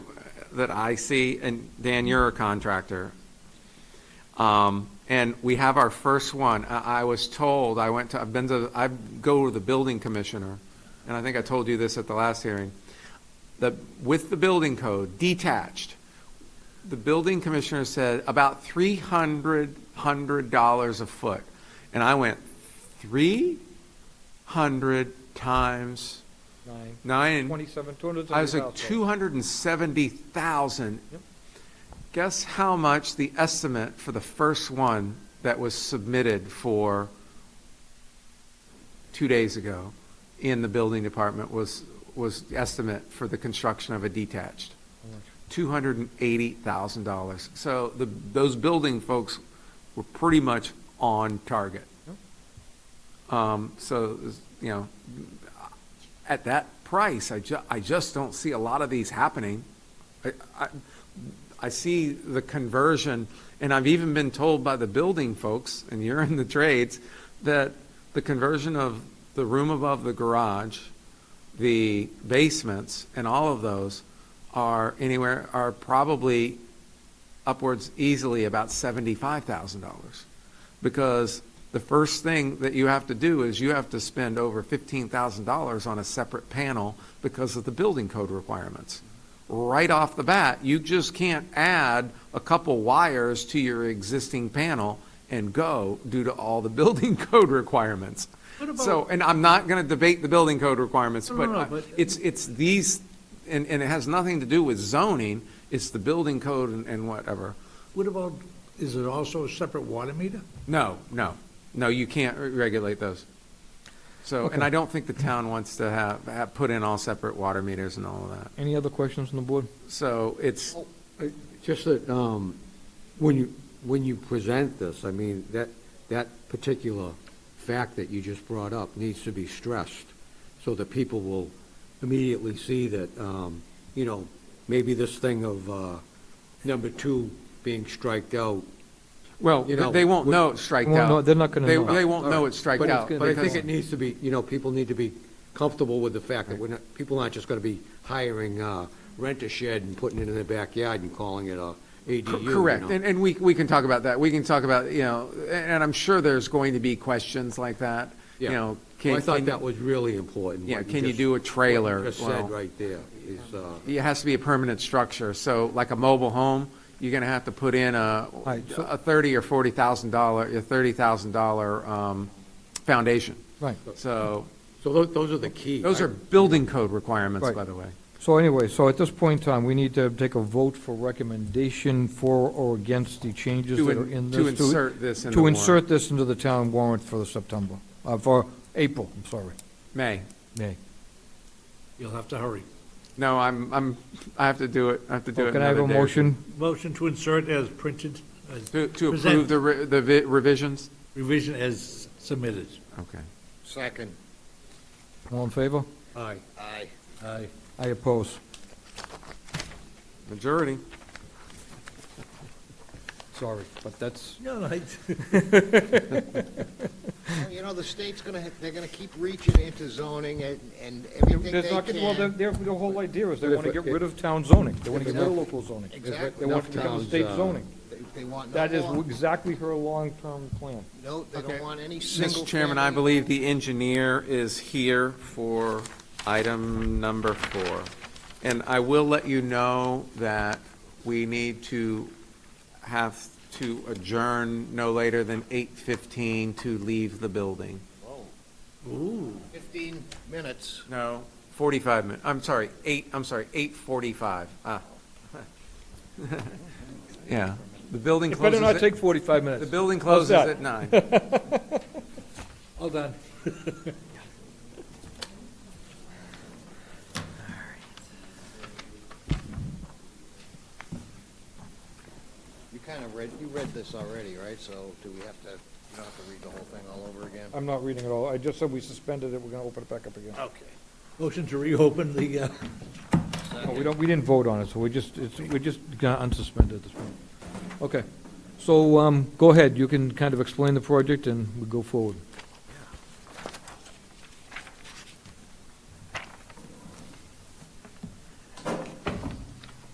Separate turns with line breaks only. that I see, and Dan, you're a contractor. Um, and we have our first one. I, I was told, I went to, I've been to, I go to the building commissioner, and I think I told you this at the last hearing, that with the building code, detached, the building commissioner said about three hundred, hundred dollars a foot. And I went, three hundred times
Nine,
nine?
twenty-seven, two hundred and seventy thousand.
I was like, two hundred and seventy thousand.
Yep.
Guess how much the estimate for the first one that was submitted for two days ago in the building department was, was the estimate for the construction of a detached? Two hundred and eighty thousand dollars. So the, those building folks were pretty much on target. Um, so, you know, at that price, I ju, I just don't see a lot of these happening. I, I, I see the conversion, and I've even been told by the building folks, and you're in the trades, that the conversion of the room above the garage, the basements, and all of those are anywhere, are probably upwards easily about $75,000. Because the first thing that you have to do is you have to spend over $15,000 on a separate panel because of the building code requirements. Right off the bat, you just can't add a couple wires to your existing panel and go due to all the building code requirements. So, and I'm not going to debate the building code requirements,
No, no,
but
no,
I-
but-
it's, it's these, and, and it has nothing to do with zoning, it's the building code and- and whatever.
What about, is it also a separate water meter?
No, no, no, you can't re- regulate those. So, and I don't think the town wants to have, have put in all separate water meters and all of that.
Any other questions from the board?
So it's,
Oh, Uh, Just that, um, when you, when you present this, I mean, that, that particular fact that you just brought up needs to be stressed, so that people will immediately see that, um, you know, maybe this thing of, uh, number two being striked out.
well,
You know,
they won't
we-
know it's striked
Well,
out.
no, they're not gonna
They-
know.
They won't know it's striked
But-
out.
But I think
because-
it needs to be, you know, people need to be comfortable with the fact that we're not, people aren't just gonna be hiring, uh, rent a shed and putting it in their backyard and calling it a ADU. you
Correct,
know.
and, and we, we can talk about that, we can talk about, you know, and I'm sure there's going to be questions like that, you
Yeah.
know.
Well,
can-
I
can-
thought that was really important.
Yeah,
what
can you
just-
do a
what
trailer?
you just
Well-
said right there is, uh,
It has to be a permanent structure, so like a mobile home, you're gonna have to put in a,
Right, so-
a thirty or forty thousand dollar, a thirty thousand dollar, um, foundation.
Right.
So,
so tho- those are the key.
those are
right?
building code requirements,
Right.
by the way.
So anyway, so at this point in time, we need to take a vote for recommendation for or against the changes
To
that
in-
are in
to
this.
insert this in the
To
warrant.
insert this into the town warrant for the September, uh, for April, I'm sorry,
May,
May.
You'll have to hurry.
no, I'm, I'm, I have to do it, I have to do
Well,
it
Oh, Can I have
another
a
day or
motion?
Motion to insert as printed, as
two. To, to approve
Present.
the, re- the vi- revisions?
revision as submitted.
Okay.
Second.
All in favor?
Aye. Aye.
Aye.
I oppose.
Majority.
Sorry, but that's,
No, no, I-
You know, the state's gonna, ha- they're gonna keep reaching into zoning and, and everything they
There's not, well, their,
can.
their, their whole idea is they
But if
want to
it-
get rid of town zoning, they want to get rid of local zoning. They
Exactly.
want it to become
Enough
state
towns, uh,
zoning.
They- They want no
That is
more,
exactly her long-term plan.
no, they don't want any single.
Mr. Chairman, I
family.
believe the engineer is here for item number four. And I will let you know that we need to have to adjourn no later than 8:15 to leave the building.
Oh, Fifteen minutes.
No, 45 minutes, I'm sorry, 8, I'm sorry, 8:45. Ah. Yeah, the building
It
closes
better not
at,
take 45
the
minutes.
building
How's
closes
that?
at 9.
All done.
You kind of read, you read this already, right? So do we have to, you don't have to read the whole thing all over again?
I'm not reading it all. I just said we suspended it, we're going to open it back up again.
Okay.
Motion to reopen the, uh,
No, we don't, we didn't vote on it, so we just, it's, we're just going to unsuspend it this point. Okay. So, um, go ahead, you can kind of explain the project and we go forward.